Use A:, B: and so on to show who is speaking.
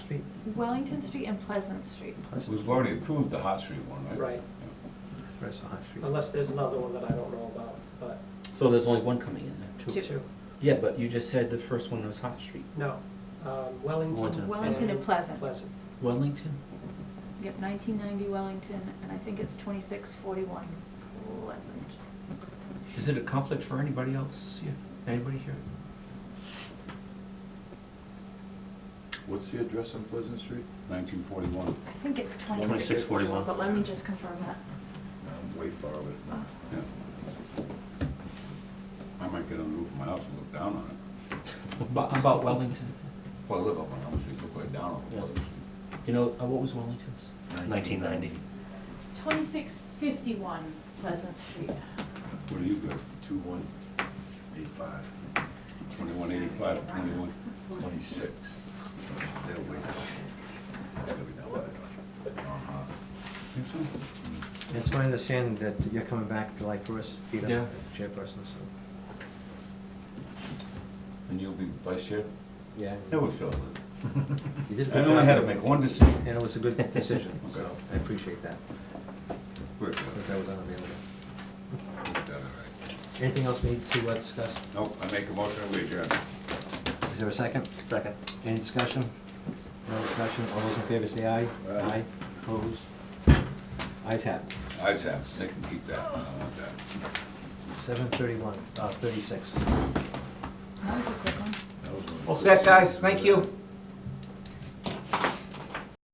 A: Wellington Street and Pleasant Street.
B: We've already approved the Hot Street one, right?
C: Right.
D: Rest on Hot Street.
C: Unless there's another one that I don't know about, but
D: So there's only one coming in there,
A: Two.
D: too?
C: two,
D: Yeah, but you just said the first one was Hot Street.
C: no. Um, Wellington.
D: Wellington.
A: Wellington and Pleasant.
C: Pleasant.
D: Wellington?
A: Yep, nineteen ninety Wellington, and I think it's twenty-six forty-one Pleasant.
D: Is it a conflict for anybody else here? Anybody here?
E: What's the address on Pleasant Street?
B: Nineteen forty-one.
A: I think it's twenty-six
F: 2641.
A: forty-one, but let me just confirm that.
E: I'm Um, way far away.
B: Yeah. I might get on the roof of my house and look down on it.
D: About, about Wellington?
B: Well, I live up on Elm Street, look right down on Pleasant Street.
D: You know, uh, what was Wellington's?
F: 1990.
A: Twenty-six fifty-one Pleasant Street.
B: What do you got?
E: Two one eight five
B: Twenty-one eighty-five or twenty-one?
E: twenty-six. They're way down. That's gonna be down bad. Uh-huh. Mm.
B: Think so?
G: It's my understanding that you're coming back July first, Peter,
D: Yeah.
G: as the chairperson, so,
B: And you'll be vice chair?
G: yeah.
B: Never shall.
G: You did a
B: I
G: good
B: know I
G: job.
B: had to make one decision.
G: And it was a good decision, so
B: Okay.
G: I appreciate that,
B: Worked out.
G: since I was unavailable.
B: Worked out all right.
G: Anything else we need to uh, discuss?
B: Nope, I make a motion, we adjourn.
G: Is there a second?
F: Second.
G: Any discussion? No discussion, all those in favor say aye.
E: Aye.
G: Opposed? Ayes have
B: I have, they can keep that, I don't want that.
G: Seven thirty-one, uh, thirty-six.
A: That was a quick one.
E: That was one of the
C: All
E: first
C: set,
E: ones.
C: guys. Thank you.